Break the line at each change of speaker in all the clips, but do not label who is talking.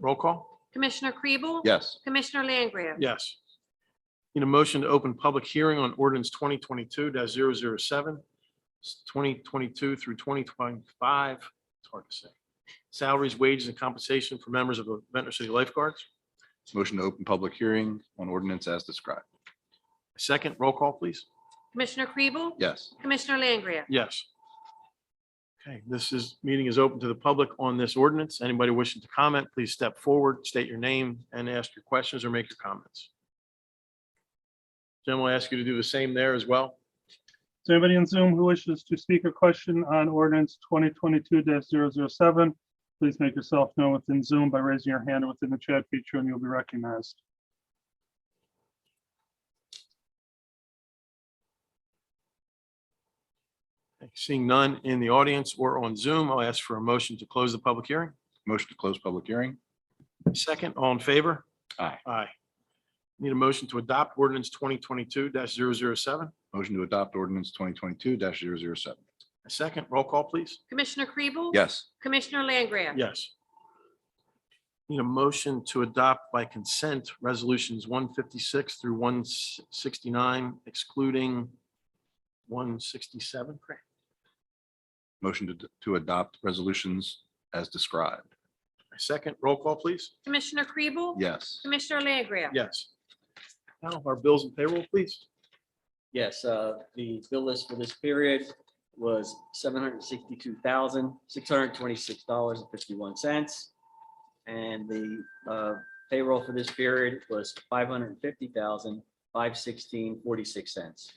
Roll call?
Commissioner Kribel?
Yes.
Commissioner Langgraf?
Yes. Need a motion to open public hearing on ordinance twenty twenty-two 7 twenty twenty-two through twenty twenty-five, it's hard to say. Salaries, wages, and compensation for members of the Ventnor City Lifeguards.
Motion to open public hearing on ordinance as described.
Second, roll call, please.
Commissioner Kribel?
Yes.
Commissioner Langgraf?
Yes. Okay, this is, meeting is open to the public on this ordinance. Anybody wishing to comment, please step forward, state your name, and ask your questions or make your comments. Jim, I'll ask you to do the same there as well.
Is there anybody on Zoom who wishes to speak or question on ordinance twenty twenty-two 7 Please make yourself known within Zoom by raising your hand within the chat feature and you'll be recognized.
Seeing none in the audience or on Zoom, I'll ask for a motion to close the public hearing.
Motion to close public hearing.
Second, all in favor?
Aye.
Aye. Need a motion to adopt ordinance twenty twenty-two 7
Motion to adopt ordinance twenty twenty-two 7
A second, roll call, please.
Commissioner Kribel?
Yes.
Commissioner Langgraf?
Yes. Need a motion to adopt by consent resolutions one fifty-six through one sixty-nine excluding one sixty-seven. Correct.
Motion to, to adopt resolutions as described.
A second, roll call, please.
Commissioner Kribel?
Yes.
Commissioner Langgraf?
Yes. Now, our bills and payroll, please.
Yes, uh, the bill list for this period was seven hundred sixty-two thousand, six hundred twenty-six dollars and fifty-one cents. And the uh, payroll for this period was five hundred fifty thousand, five sixteen, forty-six cents.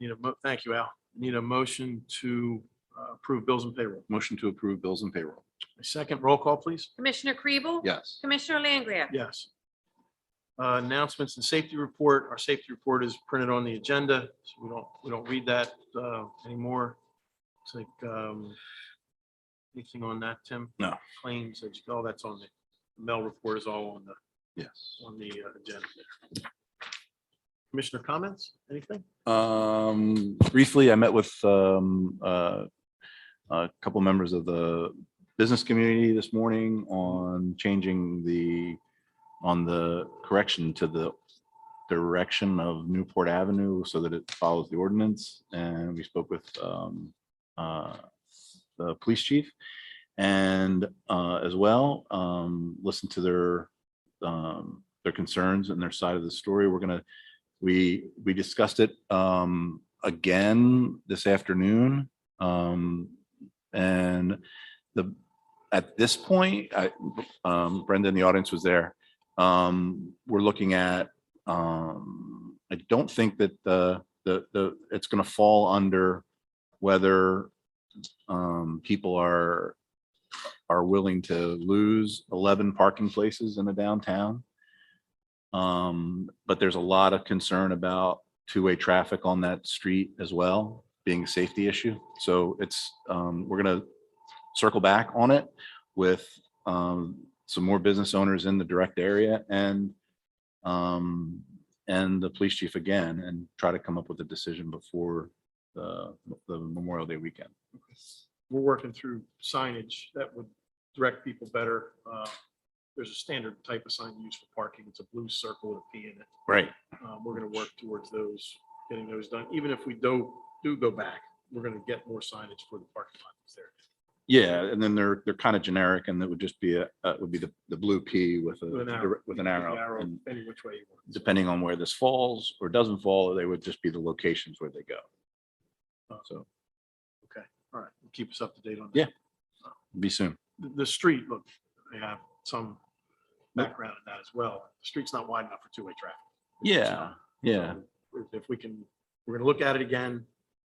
Need a, mo- thank you, Al. Need a motion to uh, approve bills and payroll.
Motion to approve bills and payroll.
A second, roll call, please.
Commissioner Kribel?
Yes.
Commissioner Langgraf?
Yes. Uh, Announcements and safety report. Our safety report is printed on the agenda, so we don't, we don't read that uh, anymore. It's like, um, anything on that, Tim?
No.
Claims, that's- all that's on the, the mail report is all on the,
Yes.
on the uh, agenda. Commissioner comments? Anything?
Um, briefly, I met with, um, uh, a couple members of the business community this morning on changing the, on the correction to the direction of Newport Avenue so that it follows the ordinance. And we spoke with, um, uh, the police chief and, uh, as well, um, listened to their, um, their concerns and their side of the story. We're gonna we, we discussed it um again this afternoon. Um And the, at this point, I, um Brenda in the audience was there. Um We're looking at, um I don't think that the, the, the, it's going to fall under whether um people are, are willing to lose 11 parking places in a downtown. Um, but there's a lot of concern about two-way traffic on that street as well, being a safety issue. So it's, um, we're gonna circle back on it with, um, some more business owners in the direct area and, um, and the police chief again, and try to come up with a decision before the, the Memorial Day weekend.
We're working through signage that would direct people better. Uh, There's a standard type of sign used for parking. It's a blue circle with a P in it.
Right.
Um, We're going to work towards those, getting those done. Even if we do, do go back, we're going to get more signage for the parking lot that's there.
Yeah, and then they're, they're kind of generic and that would just be a, uh, would be the, the blue P with a, with an arrow. and-
Any which way you want.
depending on where this falls or doesn't fall, they would just be the locations where they go. So,
All right, keep us up to date on that.
Yeah. be soon.
The, the street, look, I have some background in that as well. The street's not wide enough for two-way traffic. It's just
Yeah,
not.
yeah,
So If we can, we're going to look at it again.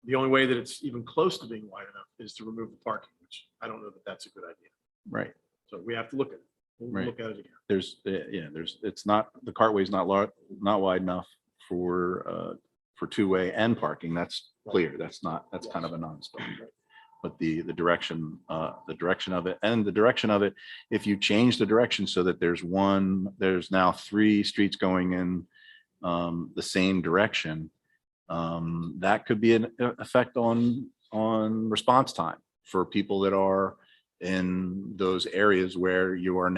The only way that it's even close to being wide enough is to remove the parking, which I don't know that that's a good idea.
right.
So we have to look at it. We'll
Right.
look at it again.
There's, uh, yeah, there's, it's not, the cartway's not lar, not wide enough for, uh, for two-way and parking. That's clear. That's not, that's kind of a non-starter. But the, the direction, uh, the direction of it and the direction of it, if you change the direction so that there's one, there's now three streets going in um, the same direction, um, that could be an effect on, on response time for people that are in those areas where you are